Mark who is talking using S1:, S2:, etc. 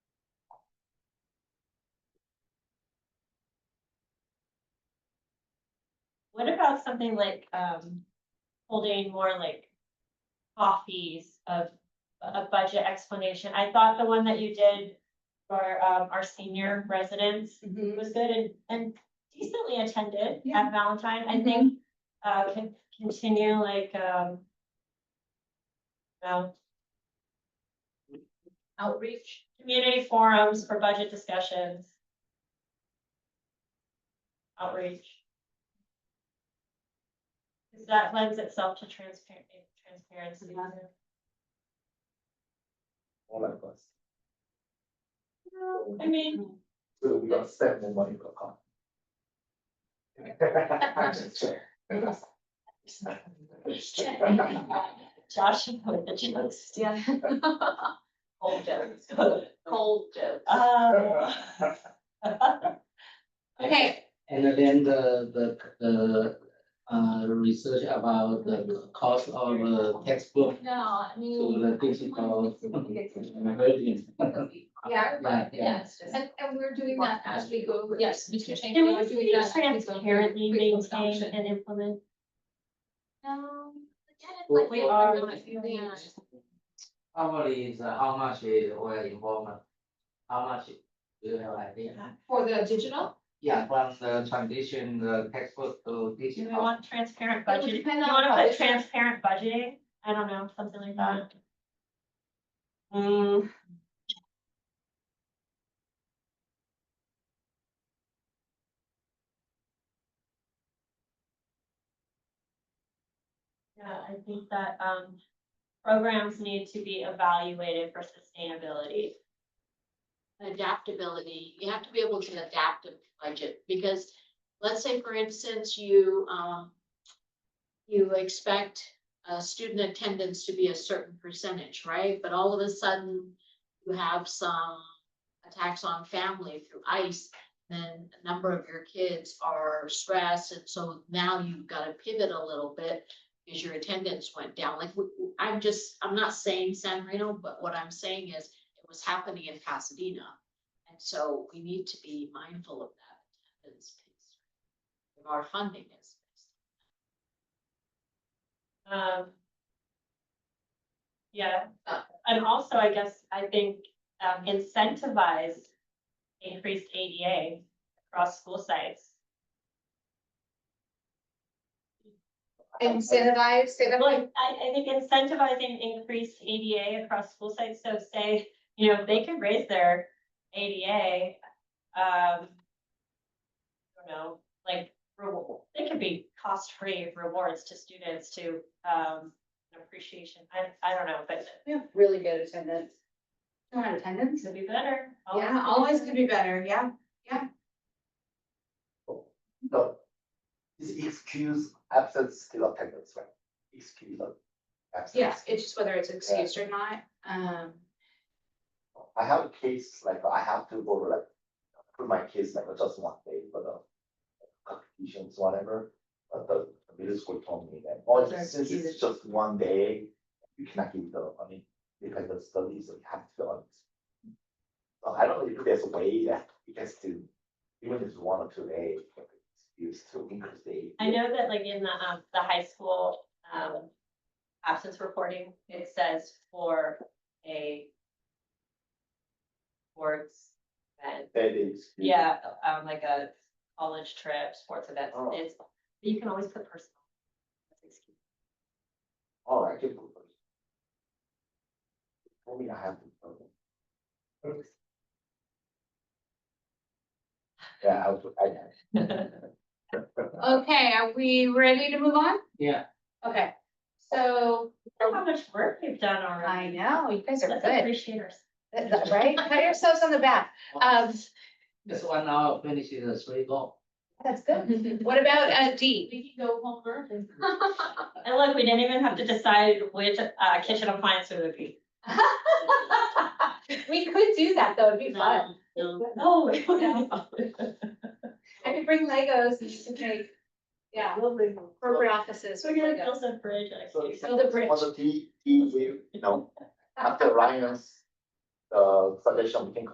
S1: What about something like, um, holding more like coffees of a budget explanation? I thought the one that you did for, um, our senior residents
S2: Mhm.
S1: It was good and, and decently attended
S2: Yeah.
S1: at Valentine, I think, uh, can continue like, um. Well,
S2: Outreach.
S1: community forums for budget discussions. Outreach. Cause that lends itself to transparent, transparency.
S3: All that was.
S1: No, I mean,
S3: So we got spent more money for coffee.
S1: Josh with the jokes.
S2: Yeah. Cold jokes, cold jokes.
S1: Um,
S2: Okay,
S4: And then the, the, the, uh, research about the cost of a textbook
S2: no, I
S4: to
S2: mean.
S4: the digital.
S2: Yeah,
S4: Yeah, yeah.
S2: yes, and, and we're doing that as we go. Yes, Mr. Shane.
S1: Can we see transparently maintain and implement?
S2: No, forget it, Um,
S4: We-
S2: like,
S1: we
S2: we're
S1: are-
S2: gonna do that.
S4: Probably is uh, how much is oil involvement, how much do you have idea?
S2: For the digital?
S4: Yeah, from the transition, the textbook to
S1: Do we
S4: digital.
S1: want transparent
S2: Oh. It would
S1: budgeting?
S2: depend
S1: You
S2: on
S1: wanna
S2: how
S1: put
S2: it's-
S1: transparent budgeting? I don't know, something like that.
S2: Mm.
S1: Hmm. Yeah, I think that, um, programs need to be evaluated for sustainability.
S5: adaptability, you have to be able to adapt a budget, because let's say, for instance, you, um, you expect, uh, student attendance to be a certain percentage, right? But all of a sudden, you have some attacks on family through ICE, then a number of your kids are stressed, and so now you've gotta pivot a little bit because your attendance went down, like, w- w- I'm just, I'm not saying San Marino, but what I'm saying is it was happening in Pasadena. And so we need to be mindful of that attendance piece. If Our funding is.
S1: Um. Yeah,
S5: Uh.
S1: and also I guess I think um incentivize increased ADA across school sites.
S2: Incentivize, say that
S1: Like, I I think incentivizing increased ADA across school sites, so say, you know, if they could raise their ADA, um. I don't know, like, reward, they could be cost-free rewards to students to um appreciation, I I don't know, but
S6: We have really good attendance. Not attendance?
S1: Could be better.
S6: Yeah, always could be better, yeah.
S3: No. It's excuse absence still attendance, right? Excuse of absence.
S6: Yeah, it's just whether it's excused or not, um.
S3: I have a case, like I have to go like, put my kids like just one day for the competitions, whatever. But the the middle school told me that, oh,
S6: Those are
S3: since it's
S6: excuses.
S3: just one day, you cannot give the, I mean, because the studies, you have to. um, So I don't know if there's a way that you can still, even if it's one or two days, you still increase the.
S1: I know that like in the, um, the high school, um, absence reporting, it says for a sports event,
S3: That is.
S1: yeah, um, like a college trip, sports event,
S3: Oh.
S1: it's, but you can always put personal.
S3: All right, good. Told me I have to. Yeah, I was, I,
S6: Okay, are we ready to move on?
S4: Yeah.
S6: Okay, so
S1: Look How much work we've done
S6: I
S1: already.
S6: know, you guys are
S1: Let's
S6: good,
S1: appreciate ourselves.
S6: That's- right? Pat yourselves on the back. Um,
S4: This one hour finishes the three goal.
S6: that's good. What about uh D?
S5: We can go home early.
S1: And look, we didn't even have to decide which, uh, kitchen appliance it would be.
S6: We could do that, though, it'd be fun.
S5: No, no.
S1: Oh.
S6: I could bring Legos and you could make, yeah, corporate offices.
S1: So we're gonna
S6: with Legos.
S1: build a bridge, I
S3: so.
S1: think.
S6: Build a bridge.
S3: On E the D, D, we, you know, after Ryan's, uh, suggestion, we can